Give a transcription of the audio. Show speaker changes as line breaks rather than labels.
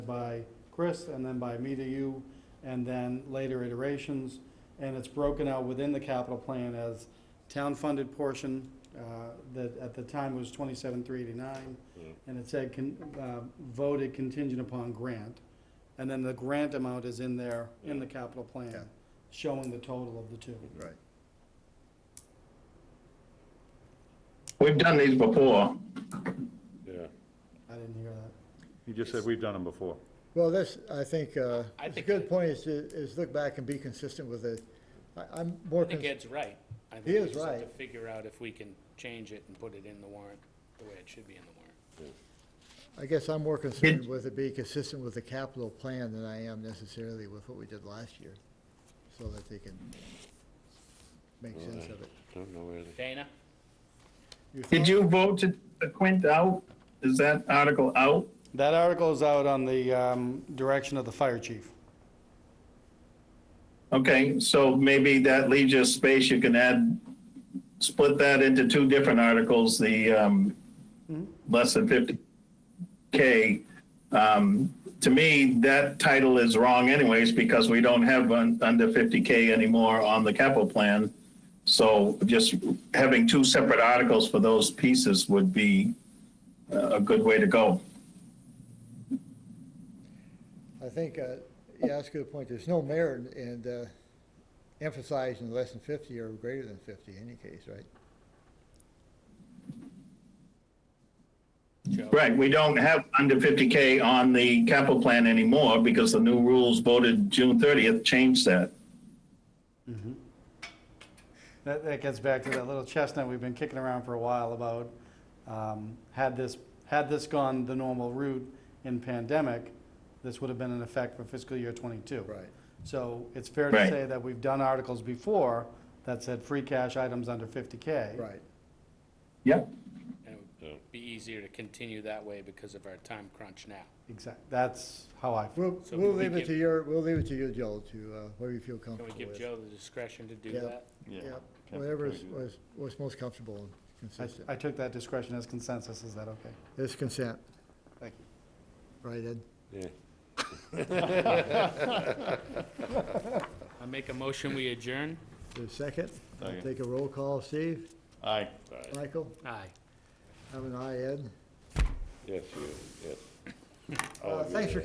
by Chris and then by me to you, and then later iterations. And it's broken out within the capital plan as town-funded portion, uh, that at the time was twenty-seven, three eighty-nine.
Mm.
And it said, con- uh, voted contingent upon grant. And then the grant amount is in there, in the capital
Yeah.
plan, showing the total of the two.
Right.
We've done these before.
Yeah,
I didn't hear that.
you just said we've done them before.
Well, this, I think, uh,
I
it's a
think
good
it-
point is to, is look back and be consistent with it. I, I'm more,
I think
cons-
Ed's right. I think
He
we
is
just have
right.
To figure out if we can change it and put it in the warrant the way it should be in the warrant.
I guess I'm more concerned with it being consistent with the capital plan than I am necessarily with what we did last year, so that they can make sense of it.
Don't know where they.
Dana,
Did you vote to the Quint out? Is that article out?
That article is out on the, um, direction of the fire chief.
Okay, so maybe that leaves you space, you can add, split that into two different articles, the, um, less than fifty K. Um, to me, that title is wrong anyways, because we don't have un- under fifty K anymore on the capital plan. So just having two separate articles for those pieces would be uh, a, a good way to go.
I think, uh, yeah, that's a good point. There's no merit in uh, emphasizing less than fifty or greater than fifty in any case, right?
Joe,
Right, we don't have under 50K on the capital plan anymore because the new rules voted June 30th changed that.
That, that gets back to that little chestnut we've been kicking around for a while about, um, had this, had this gone the normal route in pandemic, this would have been in effect for fiscal year twenty-two. So it's fair to
Right.
say that we've done articles before that said free cash items under fifty K.
Right.
Yep.
and it would be easier to continue that way because of our time crunch now.
Exactly, that's how I feel.
We'll,
So
we'll
we
leave it
give-
to your, we'll leave it to you, Joel, to, uh, whatever you feel
Can we
comfortable
give
with.
Joe the discretion to do
Yeah.
that?
Yeah, whatever is, was, was most comfortable and
I,
consistent.
I took that discretion as consensus, is that okay?
It's consent,
Thank you.
right, Ed?
Yeah.
I make a motion, we adjourn?
There's a second? I'll
Second.
Take a roll call, Steve,
Aye.
Michael,
Aye.
I'm an aye, Ed.
Yes, you, yes.
Uh, Thanks for